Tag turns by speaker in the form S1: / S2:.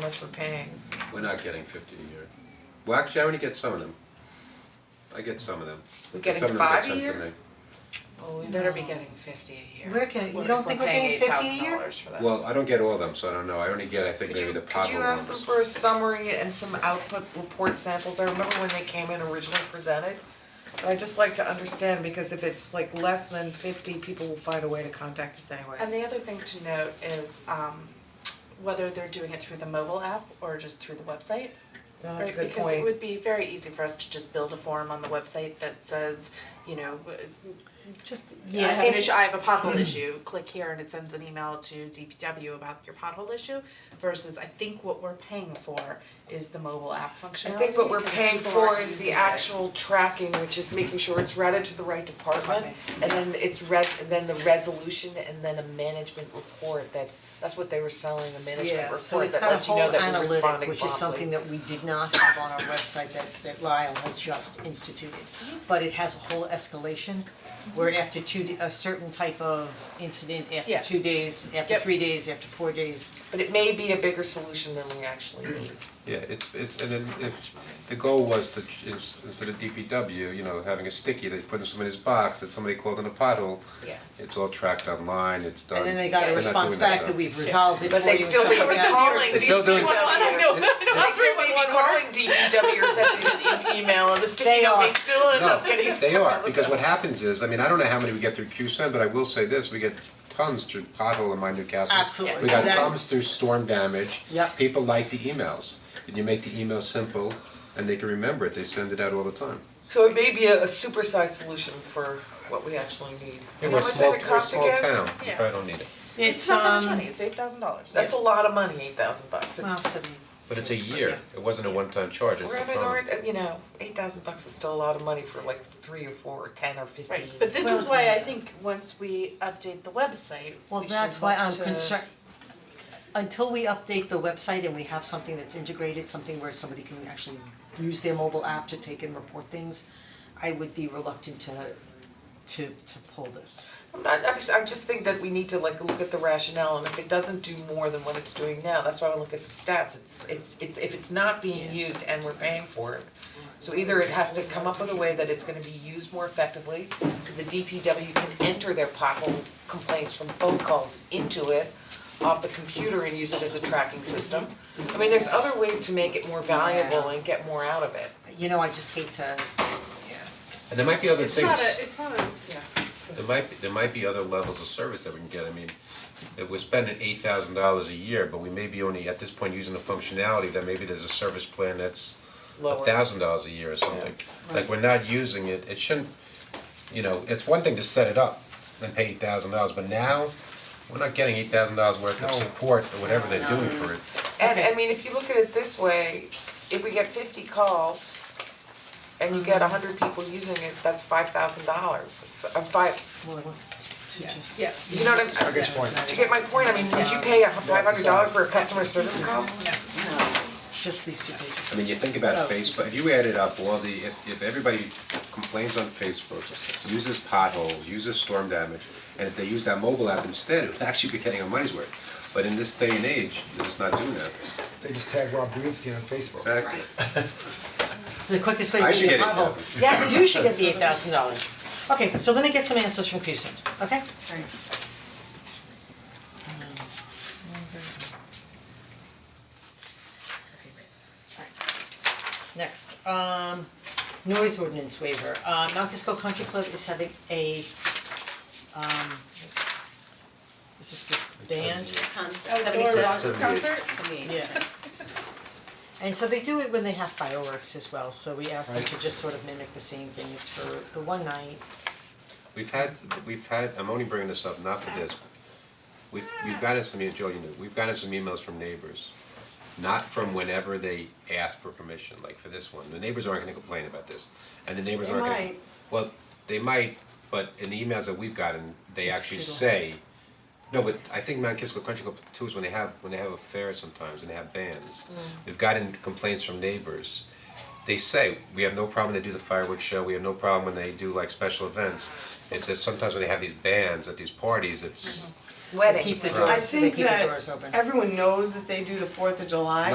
S1: much we're paying.
S2: We're not getting fifty a year. Well, actually, I already get some of them. I get some of them.
S1: We're
S2: Some
S1: getting
S2: of them get
S1: five a
S2: sent to
S1: year?
S2: me.
S3: Oh,
S4: Well, we better be getting fifty a year.
S1: We're getting- you
S4: What if
S1: don't think we're getting 50 a year?
S4: paying eight thousand dollars for this?
S2: Well, I don't get all of them, so I don't know. I only get, I think,
S1: Could you,
S2: maybe the
S1: could
S2: Pablo
S1: you
S2: ones.
S1: ask them for a summary and some output report samples? I remember when they came in originally presented. But I'd just like to understand, because if it's like less than fifty, people will find a way to contact us anyways.
S3: And the other thing to note is um whether they're doing it through the mobile app or just through the website.
S1: No, that's a
S3: Right,
S1: good
S3: Because it
S1: point.
S3: would be very easy for us to just build a form on the website that says, you know, w-
S1: Just,
S3: I have an issue, I have a pothole issue, click here and it sends an email to DPW about your pothole issue versus I think what we're paying for is the mobile app
S1: I
S3: functionality.
S1: think what we're
S3: and
S1: paying
S3: people
S1: for
S3: aren't
S1: is the
S3: using it.
S1: actual tracking, which is making sure it's routed to the right department.
S3: Department.
S1: And then it's res, and then the resolution and then a management report that, that's what they were selling, a management report that lets you know that we're responding promptly.
S5: Yeah, so it's got a whole analytic, which is something that we did not have on our website that that Lyle has just instituted. But it has a whole escalation where after two, d- a certain type of incident, after
S3: Yeah.
S5: two days, after
S3: Yep.
S5: three days, after four days.
S1: But it may be a bigger solution than we actually need.
S2: Yeah, it's, it's, and then if, the goal was to, ch- ins- instead of DPW, you know, having a sticky, they put in somebody's box that somebody called in a pothole.
S3: Yeah.
S2: It's all tracked online, it's done.
S5: And then they got
S2: They're
S5: a
S2: not
S5: response
S2: doing that
S5: back
S2: though.
S5: that we've resolved it for
S1: But they
S5: you and
S1: still
S5: stuff like
S1: haven't
S5: that.
S1: done
S2: They're still doing
S3: Well, I don't know,
S2: It-
S3: I know,
S1: They may be calling DPW or sending an email and the sticky
S5: They
S1: note may
S5: are.
S1: still end
S2: No,
S1: up getting
S2: they
S1: stuck
S2: are,
S1: on the
S2: because what
S1: bill.
S2: happens is, I mean, I don't know how many we get through QSEN, but I will say this, we get tons through pothole in my Newcastle.
S5: Absolutely.
S2: We got
S5: That-
S2: tons through storm damage.
S5: Yep.
S2: People like the emails, and you make the email simple, and they can remember it, they send it out all the time.
S1: So it may be a, a supersized solution for what we actually need.
S2: Yeah,
S1: And
S2: we're
S1: how much
S2: a
S1: does
S2: small,
S1: it
S2: we're a
S1: cost
S2: small
S1: again?
S2: town, you
S3: Yeah.
S2: probably don't need it.
S3: It's not that much money,
S5: um,
S3: it's eight thousand dollars.
S1: That's a lot of money, eight thousand bucks. It's-
S5: Well, seventy.
S2: But it's a year, it wasn't a one-time charge, it's
S1: We're
S2: the
S1: having,
S2: problem.
S1: our- you know, eight thousand bucks is still a lot of money for like three or four or ten or fifteen.
S3: Right, but this
S5: Well,
S3: is
S5: it's
S3: why I
S5: not-
S3: think once we update the website,
S5: Well,
S3: we should
S5: that's why
S3: look
S5: I'm
S3: to-
S5: concerned, until we update the website and we have something that's integrated, something where somebody can actually use their mobile app to take and report things, I would be reluctant to to to pull this.
S1: I'm not, I'm just, I just think that we need to like look at the rationale and if it doesn't do more than what it's doing now, that's why I look at the stats, it's, it's, it's, if it's not being used and we're paying for it. So either it has to come up with a way that it's gonna be used more effectively, so the DPW can enter their pothole complaints from phone calls into it off the computer and use it as a tracking system. I mean, there's other ways to make it more valuable and get more out of it.
S5: You know, I just hate to,
S2: And there might be other
S3: It's
S2: things,
S3: not a, it's not a, yeah,
S2: there might, be- there might be other levels of service that we can get, I mean, if we're spending eight thousand dollars a year, but we may be only at this point using the functionality, that maybe there's a service plan that's a
S1: Lower.
S2: thousand dollars a year or something. Like, we're not using it, it shouldn't, you know, it's one thing to set it up and pay eight thousand dollars, but now, we're not getting eight thousand dollars worth of support or whatever they're doing for it.
S1: And I
S5: Okay.
S1: mean, if you look at it this way, if we get fifty calls and you get hundred people using it, that's five thousand dollars. So, uh, five,
S5: well, I want to just.
S3: yeah.
S1: you know what I'm, do
S6: Good point.
S1: you get my point? I mean, would you pay five hundred dollars for a customer service call?
S5: Just these two pages.
S2: I mean, you think about
S5: Oh.
S2: Facebook, if you added up all the, if, if everybody complains on Facebook, uses potholes, uses storm damage, and if they use that mobile app instead, it would actually be getting our money's worth. But in this day and age, they're just not doing that.
S6: They just tag Rob Greenstein on Facebook.
S2: Exactly.
S5: It's the quickest way
S2: I
S5: to
S2: should
S5: get a
S2: get it.
S5: pothole. Yes, you should get the eight thousand dollars. Okay, so let me get some answers from Crescent, okay? Okay, great. Alright. Next, um, noise ordinance waiver, uh, Mount Kisco Country Club is having a, um, is this this band?
S3: Oh, that means concert?
S5: Yeah. And so they do it when they have fireworks as well, so we asked them to just sort of mimic the same thing, it's for the one night.
S2: We've had, we've had, I'm only bringing this up, not for this. We've, we've gotten some, e- Joe, you know, we've gotten some emails from neighbors, not from whenever they ask for permission, like for this one. The neighbors aren't gonna complain about this, and the neighbors
S5: They
S2: aren't gonna.
S5: might.
S2: Well, they might, but in the emails that we've gotten, they
S5: It's
S2: actually
S5: feudal
S2: say,
S5: house.
S2: no, but I think Mount Kisco Country Club too is when they have, when they have a fair sometimes and they have bands. We've gotten complaints from neighbors they say, we have no problem when they do the fireworks show, we have no problem when they do like special events. It's that sometimes when they have these bands at these parties, it's,
S5: They
S1: Weddings.
S5: keep the
S2: Right.
S7: I
S5: doors, they
S7: think
S5: keep the
S7: that
S5: doors open.
S7: everyone knows that they do the Fourth of July.